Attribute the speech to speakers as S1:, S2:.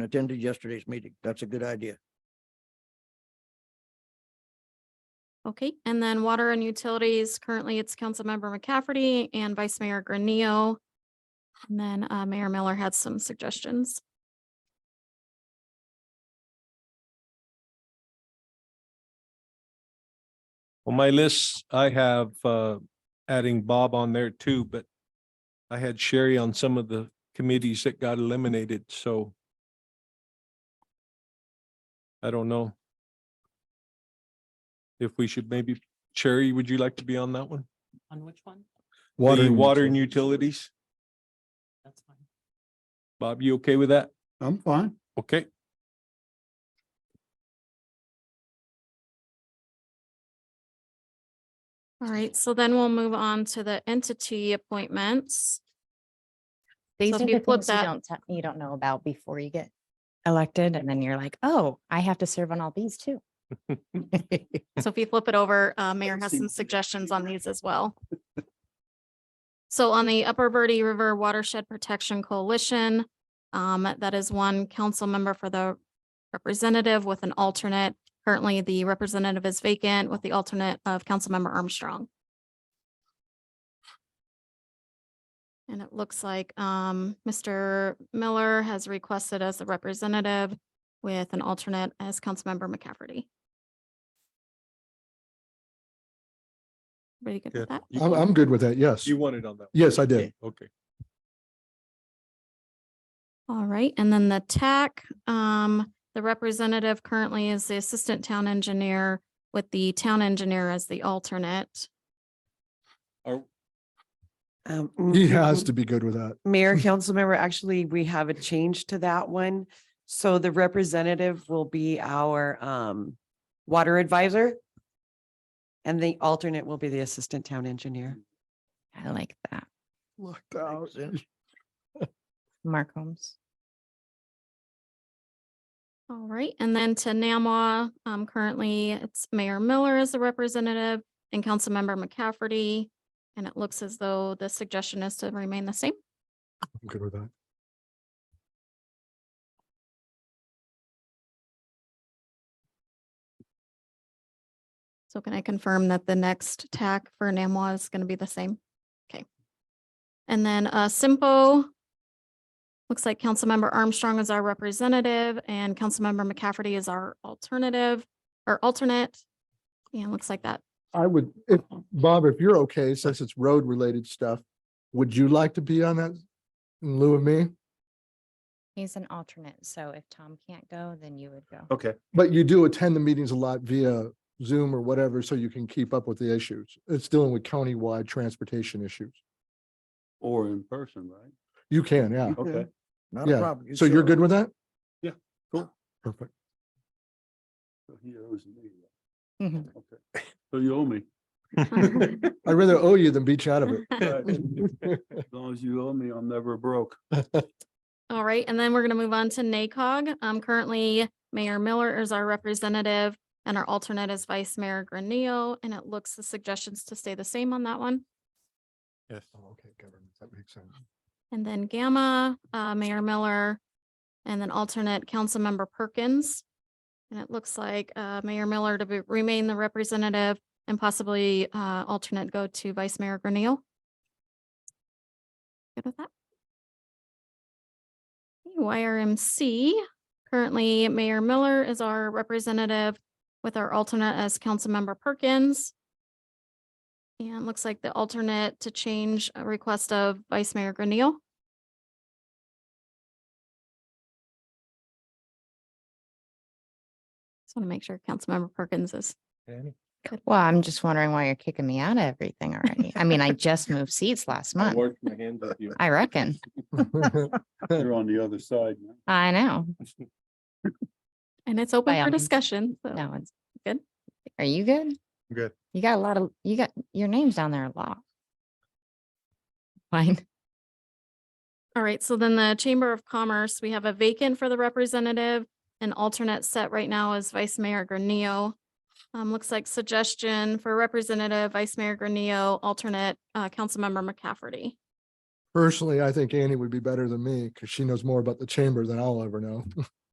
S1: and attended yesterday's meeting. That's a good idea.
S2: Okay, and then Water and Utilities, currently it's Councilmember McCafferty and Vice Mayor Granillo. And then uh, Mayor Miller had some suggestions.
S3: On my list, I have uh adding Bob on there too, but I had Sherry on some of the committees that got eliminated, so I don't know. If we should maybe, Sherry, would you like to be on that one?
S4: On which one?
S3: The Water and Utilities.
S4: That's fine.
S3: Bob, you okay with that?
S5: I'm fine.
S3: Okay.
S2: All right, so then we'll move on to the entity appointments.
S6: These
S2: So
S6: are
S2: if you
S6: the
S2: flip
S6: things you
S2: that-
S6: don't, te- you don't know about before you get elected and then you're like, oh, I have to serve on all these too.
S2: So if you flip it over, uh, Mayor has some suggestions on these as well. So on the Upper Verde River Watershed Protection Coalition, um, that is one council member for the representative with an alternate. Currently, the representative is vacant with the alternate of Councilmember Armstrong. And it looks like, um, Mr. Miller has requested as the representative with an alternate as Councilmember McCafferty. Everybody good with
S3: good.
S2: that?
S3: You-
S5: I'm, I'm good with that. Yes.
S3: You wanted on that. one.
S5: Yes, I did.
S3: Okay.
S2: All right, and then the TAC, um, the representative currently is the Assistant Town Engineer with the Town Engineer as the alternate.
S3: Are,
S7: Um,
S5: He has to be good with that.
S7: Mayor, council member, actually, we have a change to that one. So the representative will be our um water advisor. And the alternate will be the assistant town engineer.
S6: I like that.
S5: Locked out.
S1: sense.
S6: Mark Holmes.
S2: All right, and then to NAMWA, um, currently it's Mayor Miller as the representative and Councilmember McCafferty. And it looks as though the suggestion is to remain the same.
S5: I'm good with that.
S2: So can I confirm that the next TAC for NAMWA is going to be the same? Okay. And then uh Simpo. Looks like Councilmember Armstrong is our representative and Councilmember McCafferty is our alternative or alternate. Yeah, looks like that.
S5: I would, if, Bob, if you're okay, since it's road related stuff, would you like to be on that in lieu of me?
S6: He's an alternate. So if Tom can't go, then you would go.
S5: Okay. But you do attend the meetings a lot via Zoom or whatever, so you can keep up with the issues. It's dealing with countywide transportation issues.
S8: Or in person, right?
S5: You can, yeah.
S8: Okay.
S1: Not a
S5: Yeah,
S1: problem. You
S5: So you're
S1: show
S5: good
S1: up.
S5: with that?
S8: Yeah, cool.
S5: Perfect.
S8: So he owes me.
S6: Mhm.
S8: Okay. So you owe me.
S5: I'd rather owe you than beat you out of it.
S8: Right. As long as you owe me, I'm never broke.
S2: All right, and then we're going to move on to NACOG. Um, currently Mayor Miller is our representative and our alternate is Vice Mayor Granillo. And it looks the suggestions to stay the same on that one.
S3: yes.
S5: Oh, Okay, government, that makes sense.
S2: And then Gamma, uh, Mayor Miller, and then alternate Councilmember Perkins. And it looks like, uh, Mayor Miller to be- remain the representative and possibly, uh, alternate go to Vice Mayor Grineal. Good with that? Okay, YRMC, currently Mayor Miller is our representative with our alternate as Councilmember Perkins. And it looks like the alternate to change a request of Vice Mayor Grineal. Just want to make sure Councilmember Perkins is,
S6: Well, I'm just wondering why you're kicking me out of everything already. I mean, I just moved seats last
S3: I
S6: month.
S3: washed my hands of you.
S6: I reckon.
S8: You're on the other side now.
S6: I know.
S2: and it's open
S6: all
S2: for
S6: means.
S2: discussion. so-
S6: No, it's
S2: good.
S6: Are you good?
S3: Good.
S6: You got a lot of, you got, your name's down there a lot. Fine.
S2: All right, so then the Chamber of Commerce, we have a vacant for the representative and alternate set right now is Vice Mayor Granillo. Um, looks like suggestion for representative, Vice Mayor Granillo, alternate, uh, Councilmember McCafferty.
S5: Personally, I think Annie would be better than me because she knows more about the chamber than I'll ever know.